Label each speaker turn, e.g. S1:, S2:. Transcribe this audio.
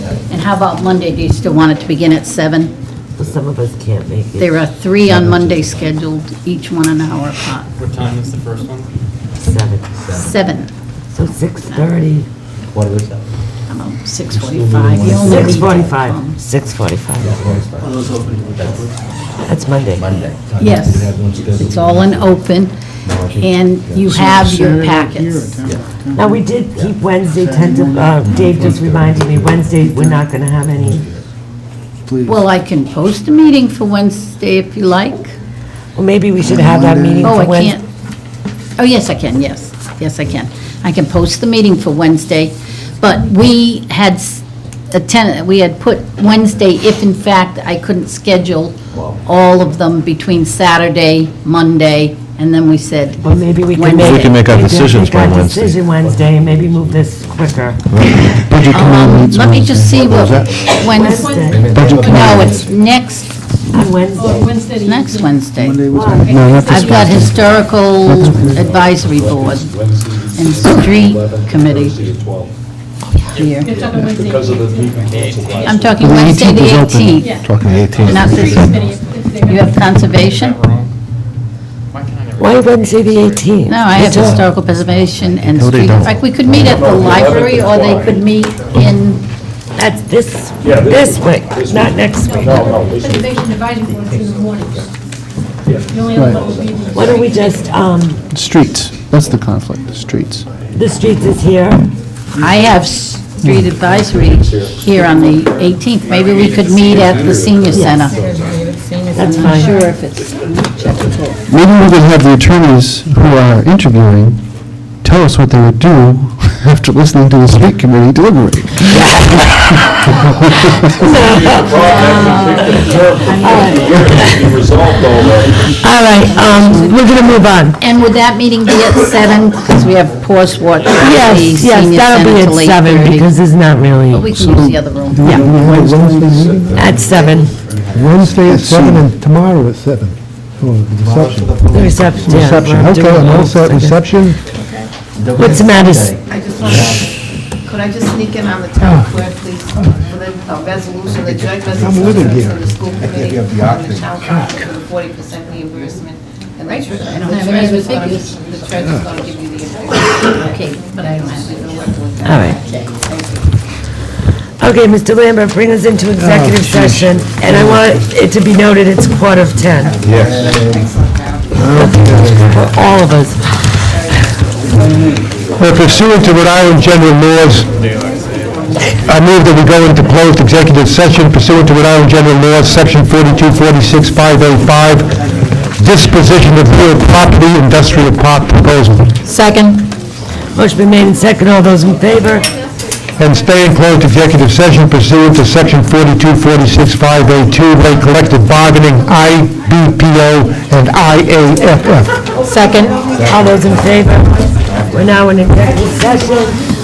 S1: how about Monday? Do you still want it to begin at seven?
S2: Some of us can't make it.
S1: There are three on Monday scheduled, each one an hour apart.
S3: What time is the first one?
S2: Seven.
S1: Seven,
S2: So 6:30.
S4: Quarter to seven.
S1: six forty-five. You only need-
S2: 6:45. 6:45. That's Monday.
S4: Monday.
S1: Yes.
S4: We have one scheduled.
S1: It's all in open, and you have your packets.
S2: Now, we did keep Wednesday tentative, uh, Dave just reminded me, Wednesday, we're not gonna have any,
S5: Please.
S1: Well, I can post a meeting for Wednesday if you like.
S2: well, maybe we should have that meeting
S1: Oh,
S2: for
S1: I
S2: Wednesday.
S1: can't. Oh, yes, I can, yes. Yes, I can. I can post the meeting for Wednesday, but we had s- a ten we had put Wednesday if in fact I couldn't schedule all of them between Saturday, Monday, and then we said, um,
S2: Well, maybe we can
S1: Wednesday.
S2: make.
S1: We can
S6: make our
S2: we
S6: decisions
S2: make our
S6: by Wednesday.
S2: Decision Wednesday, and maybe move this quicker.
S6: Budget
S1: um, let me just see what Wednesday.
S2: Wednesday,
S1: No, it's next,
S2: on Wednesday.
S7: Wednesday.
S1: next Wednesday.
S5: Monday was
S2: Why?
S6: No, not this
S1: I've got
S6: Wednesday.
S1: Historical Advisory Board and Street Committee here.
S7: You're talking Wednesday. Because of the
S1: I'm talking
S6: The
S1: Wednesday,
S6: 18th
S1: the
S6: is open.
S1: 18th.
S7: Yeah.
S6: Talking the 18th.
S1: Not this- You have conservation?
S2: Why Wednesday, the 18th?
S1: No, I have
S2: It's all-
S1: historical preservation and
S6: No, they
S1: street. In
S6: don't.
S1: fact, we could meet at the library, or they could meet in,
S2: That's this,
S8: Yeah, this
S2: this week, not next week.
S8: No, no, this is-
S7: Preservation advisory board is in the mornings. The only other one would be the.
S2: Why don't we just, um,
S5: Streets, that's the conflict, streets.
S2: the streets is here,
S1: I have street advisory here on the 18th. Maybe we could meet at the senior center.
S2: that's
S1: I'm not
S2: fine.
S1: sure if it's checkable.
S5: Maybe we could have the attorneys who are interviewing tell us what they would do after listening to the street committee deliberate.
S2: All right, um, we're gonna move on.
S1: And would that meeting be at 7? Because we have Post Watch at the
S2: Yes, yes,
S1: senior
S2: that'll be
S1: center
S2: at
S1: till
S2: seven,
S1: 8:30.
S2: because it's not
S1: But we
S2: really,
S1: can use the other room.
S2: at seven,
S9: Wednesday at
S5: Let's
S9: seven
S5: see.
S9: and tomorrow at seven. Oh, the Reception.
S2: the reception, yeah.
S9: Reception,
S2: we're
S9: okay,
S2: doing
S9: and
S2: those
S9: also at
S2: again.
S9: reception,
S2: What's the matter? s-
S10: I just want to, could I just sneak in on the town clerk, please, for the uh, resolution, the joint resolution
S9: with it
S10: of
S9: here.
S10: the school committee and the town clerk for the forty percent reimbursement. And the treasurer,
S1: don't
S10: the
S1: have any
S10: treasurer's gonna,
S1: figures.
S10: the treasurer's gonna give you the information.
S1: Okay, but I don't have it.
S2: All right. Okay, Mr. Lambert, bring us into
S9: Oh,
S2: executive session, and I want it to be noted, it's quarter of 10. Yes. For all of us.
S9: Well, Pursuant to Rhode Island General Laws, I move that we go into closed executive session pursuant to Rhode Island General Laws, Section 4246585, oh disposition of real property, industrial park proposal,
S2: Second. Motion been made and second, all those in favor?
S9: and stay in closed executive session pursuant to Section 4246582, late oh collective bargaining, IBPO, and IAFF.
S2: Second. All those in favor? We're now in executive session.